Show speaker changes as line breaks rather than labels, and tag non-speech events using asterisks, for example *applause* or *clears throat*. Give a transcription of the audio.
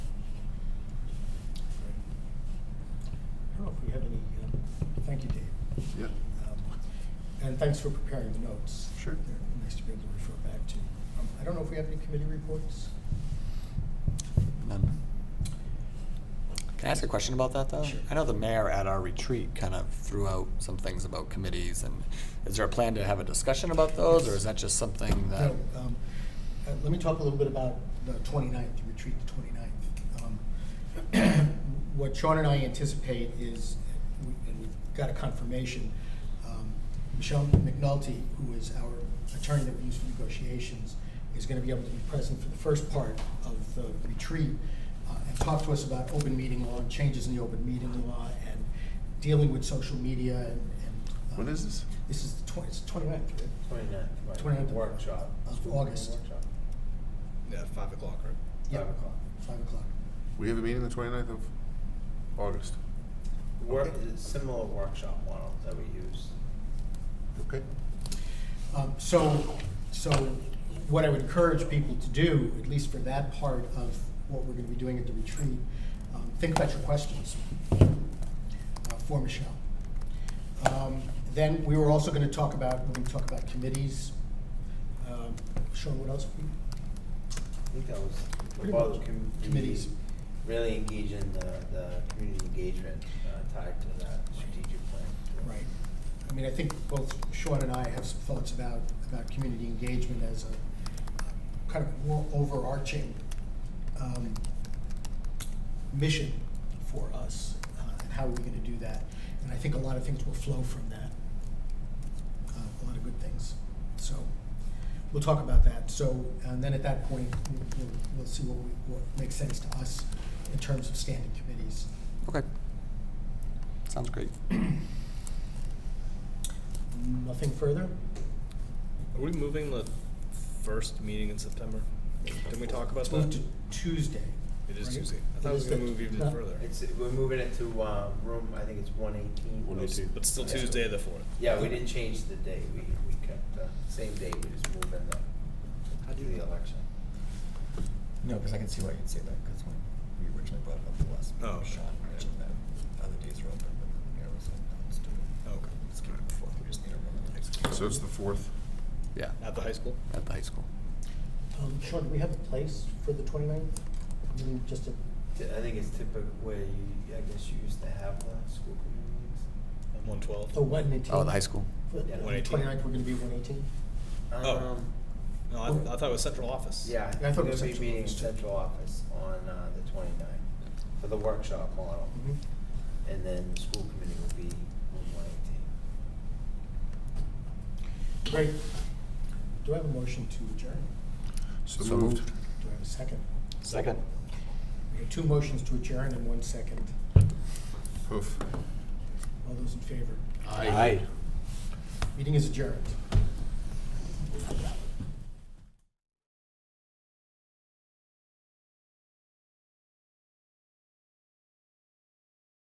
um, thanks for preparing the notes.
Sure.
They're Nice to be able to refer back to. Um, I don't know if we have any committee reports?
None. Can I ask a question about that, though?
Sure.
I know the mayor at our retreat kind of threw out some things about committees, and is there a plan to have a discussion about those, or is that just something that?
No, um, uh, Let me talk a little bit about the 29th, the retreat the 29th. Um, *clears throat* What Sean and I anticipate is, and we've got a confirmation, um, Michelle McNulty, who is our attorney that we use for negotiations, is going to be able to be present for the first part of the retreat uh, and talk to us about open meeting law and changes in the open meeting law and dealing with social media and. and, uh,
When is this?
This is the 20 it's 29th, right?
29th, right.
29th of-
Workshop.
of August.
Workshop.
Yeah, five o'clock, right?
Yeah,
Five o'clock.
Five o'clock.
We have a meeting the 29th of August.
Work,
Okay.
similar workshop model that we use.
Okay.
Um, So, so what I would encourage people to do, at least for that part of what we're going to be doing at the retreat, um, think about your questions uh, for Michelle. Um, Then we were also going to talk about, we're going to talk about committees. Um, Sean, what else?
I think that was the
Pretty
bulk
much.
com-
Committees.
Really engage in the, the community engagement uh, tied to that strategic plan.
Right. I mean, I think both Sean and I have some thoughts about, about community engagement as a kind of more overarching um, mission for us, uh, and how are we gonna do that? And I think a lot of things will flow from that, uh, a lot of good things. So, we'll talk about that. So, and then at that point, we'll- we'll, we'll see what, we- what makes sense to us in terms of standing committees.
Okay. Sounds great.
Nothing further?
Are we moving the first meeting in September? Didn't we talk about
It's
that?
moved to Tuesday.
It is
right?
Tuesday. I thought it was
is
gonna
the-
move even
no,
further.
It's, we're moving it to, uh, room, I think it's one eighteen.
One eighteen.
But still
Yeah.
Tuesday, the fourth.
Yeah, we didn't change the date, we, we kept the same date, we just moved in the,
How do
to
you-
the election.
No, because I can see why you'd say that, because when we originally brought it up the last,
Oh, okay.
Sean mentioned that other days were open, but the mayor was like, no, let's do it.
Okay.
Let's keep it before, we just need a room in the next week.
So it's the 4th.
Yeah,
At the high school?
at the high school.
Um, Sean, do we have a place for the 29th? I mean, just a,
Ti- I think it's typical where you, I guess you used to have the school communities.
One twelve?
oh, one eighteen?
Oh, the high school.
Yeah.
Twenty-ninth, we're gonna be one eighteen?
Oh.
Um,
No, I, I thought it was central office.
Yeah,
Yeah,
I
we're
thought it
gonna
was
be
central
meeting in
office too.
central office on uh, the 29th for the workshop model.
Mm-hmm.
And then the school committee will be on one eighteen.
Great. Do I have a motion to adjourn?
So,
So
moved.
moved.
Do I have a second?
Second.
We have two motions to adjourn and one second.
Poof.
All those in favor?
Aye.
Meeting is adjourned.